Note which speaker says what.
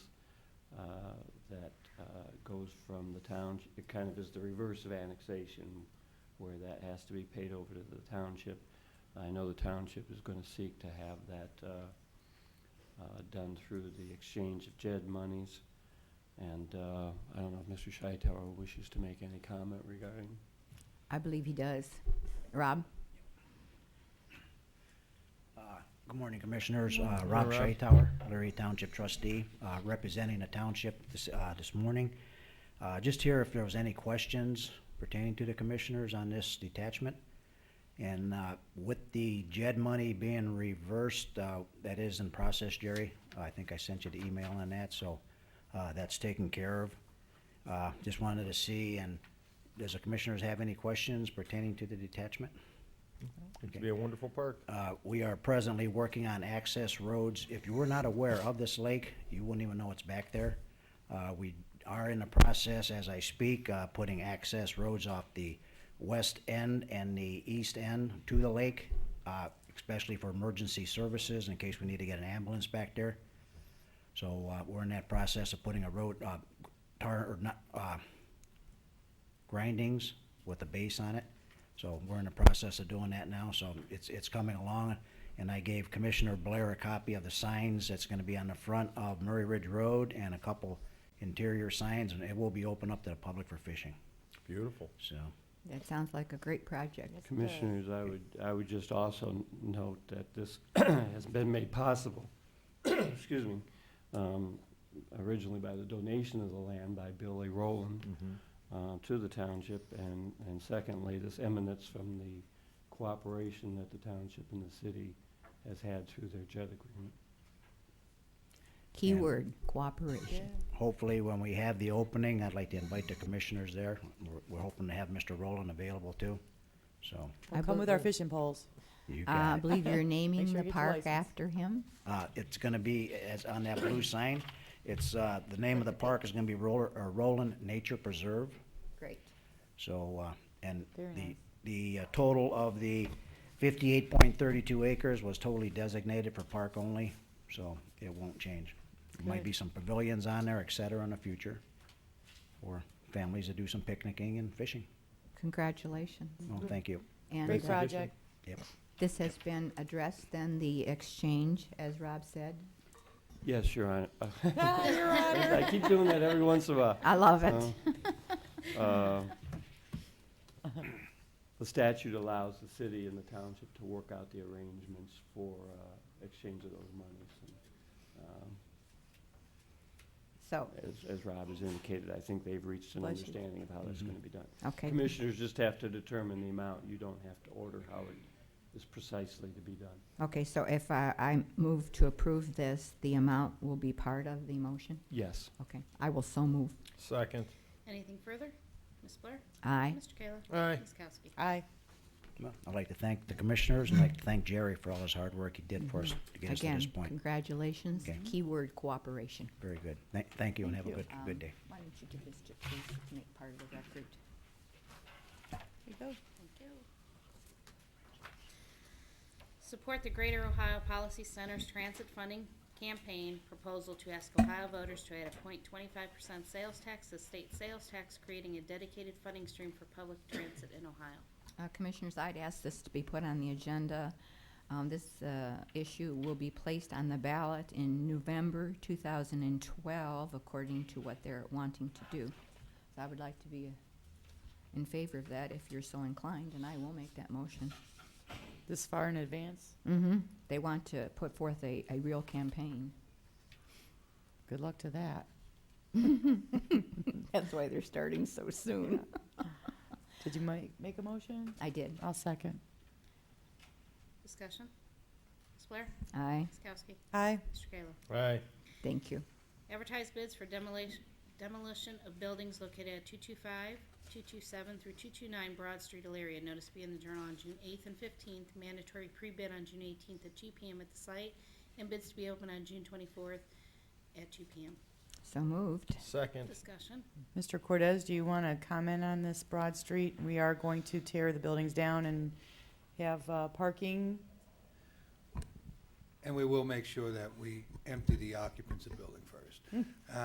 Speaker 1: that uh, goes from the town, it kind of is the reverse of annexation, where that has to be paid over to the township. I know the township is going to seek to have that uh, uh, done through the exchange of JED monies. And uh, I don't know if Mr. Scheitauer wishes to make any comment regarding
Speaker 2: I believe he does. Rob?
Speaker 3: Uh, Good morning, Commissioners. Uh,
Speaker 1: Rob.
Speaker 3: Rob Scheitauer, Lurie Township Trustee, uh, representing the township this, uh, this morning. Uh, Just here if there was any questions pertaining to the Commissioners on this detachment. And uh, with the JED money being reversed, uh, that is in process, Jerry. I think I sent you the email on that, so uh, that's taken care of. Uh, Just wanted to see, and does the Commissioners have any questions pertaining to the detachment?
Speaker 4: It could be a wonderful park.
Speaker 3: Uh, We are presently working on access roads. If you were not aware of this lake, you wouldn't even know it's back there. Uh, We are in the process, as I speak, uh, putting access roads off the west end and the east end to the lake, uh, especially for emergency services in case we need to get an ambulance back there. So uh, we're in that process of putting a road, uh, tar, or not, uh, grindings with a base on it. So we're in the process of doing that now, so it's, it's coming along. And I gave Commissioner Blair a copy of the signs that's gonna be on the front of Murray Ridge Road and a couple interior signs, and it will be open up to the public for fishing,
Speaker 4: Beautiful.
Speaker 3: so.
Speaker 2: That sounds like a great project.
Speaker 1: Commissioners, I would, I would just also n- note that this has been made possible, excuse me, um, originally by the donation of the land by Billy Rowland uh, to the township, and, and secondly, this emanates from the cooperation that the township and the city has had through their JED agreement.
Speaker 2: Keyword, cooperation.
Speaker 3: Hopefully, when we have the opening, I'd like to invite the commissioners there. We're, we're hoping to have Mr. Rowland available too, so.
Speaker 2: I
Speaker 5: We'll come with our
Speaker 2: believe-
Speaker 5: fishing poles.
Speaker 3: You
Speaker 2: Uh, I
Speaker 3: got it.
Speaker 2: believe you're naming
Speaker 5: sure
Speaker 2: the
Speaker 5: you get your
Speaker 2: park
Speaker 5: license.
Speaker 2: after him.
Speaker 3: Uh, it's gonna be, as on that blue sign, it's, uh, the name of the park is gonna be Roller, or Roland Nature Preserve.
Speaker 2: Great.
Speaker 3: So, uh, and
Speaker 5: Very
Speaker 3: the,
Speaker 5: nice.
Speaker 3: the uh, total of the fifty-eight point thirty-two acres was totally designated for park only, so it won't change. There Might be some pavilions on there, et cetera, in the future, for families to do some picnicking and fishing.
Speaker 2: Congratulations.
Speaker 3: Well, thank you.
Speaker 2: And
Speaker 5: Great
Speaker 2: uh,
Speaker 5: project.
Speaker 3: Yep.
Speaker 2: this has been addressed, then the exchange, as Rob said.
Speaker 1: Yes, Your Honor.
Speaker 5: Ah, you're on it.
Speaker 1: I keep doing that every once in a while.
Speaker 3: Uh-huh.
Speaker 2: I love it.
Speaker 1: Uh, The statute allows the city and the township to work out the arrangements for uh, exchange of those monies. And, um,
Speaker 2: So,
Speaker 1: as- As Rob has indicated, I think they've reached an
Speaker 5: Bless you.
Speaker 1: understanding of how that's going to be done.
Speaker 2: okay.
Speaker 1: Commissioners just have to determine the amount. You don't have to order how it is precisely to be done.
Speaker 2: Okay, so if I, I move to approve this, the amount will be part of the motion?
Speaker 1: Yes.
Speaker 2: Okay, I will so move.
Speaker 4: Second.
Speaker 6: Anything further? Ms. Blair?
Speaker 2: Aye.
Speaker 6: Mr. Kayla?
Speaker 4: Aye.
Speaker 6: Ms. Kowski?
Speaker 5: Aye.
Speaker 3: Well, I'd like to thank the commissioners, and I'd like to thank Jerry for all his hard work he did for us to get us to
Speaker 2: Again,
Speaker 3: this point.
Speaker 2: congratulations.
Speaker 3: Okay.
Speaker 2: Keyword, cooperation.
Speaker 3: Very good. Thank, thank you, and have a good,
Speaker 2: Um,
Speaker 3: good day.
Speaker 2: Why don't you give this to please make part of the record?
Speaker 5: There you go.
Speaker 6: Thank you. Support the Greater Ohio Policy Center's Transit Funding Campaign proposal to ask Ohio voters to add a point twenty-five percent sales tax to state sales tax, creating a dedicated funding stream for public transit in Ohio.
Speaker 2: Uh, Commissioners, I'd ask this to be put on the agenda. Um, This uh, issue will be placed on the ballot in November 2012, according to what they're wanting to do. So I would like to be uh, in favor of that if you're so inclined, and I will make that motion.
Speaker 5: This far in advance.
Speaker 2: Mm-hmm. They want to put forth a, a real campaign.
Speaker 5: Good luck to that.
Speaker 2: That's why they're starting so soon.
Speaker 5: Did you make, make a motion?
Speaker 2: I did.
Speaker 5: I'll second.
Speaker 6: Discussion? Ms. Blair?
Speaker 2: Aye.
Speaker 6: Ms. Kowski?
Speaker 5: Aye.
Speaker 6: Mr. Kayla?
Speaker 4: Aye.
Speaker 2: Thank you.
Speaker 6: Advertise bids for demolition, demolition of buildings located at 225, 227 through 229 Broad Street, Elaria. Notice to be in the Journal on June 8th and 15th. Mandatory pre-bid on June 18th at 2 PM at the site, and bids to be open on June 24th at 2 PM.
Speaker 2: So moved.
Speaker 4: Second.
Speaker 6: Discussion.
Speaker 5: Mr. Cortez, do you want to comment on this Broad Street? We are going to tear the buildings down and have uh, parking.
Speaker 7: And we will make sure that we empty the occupants of the building first. Uh,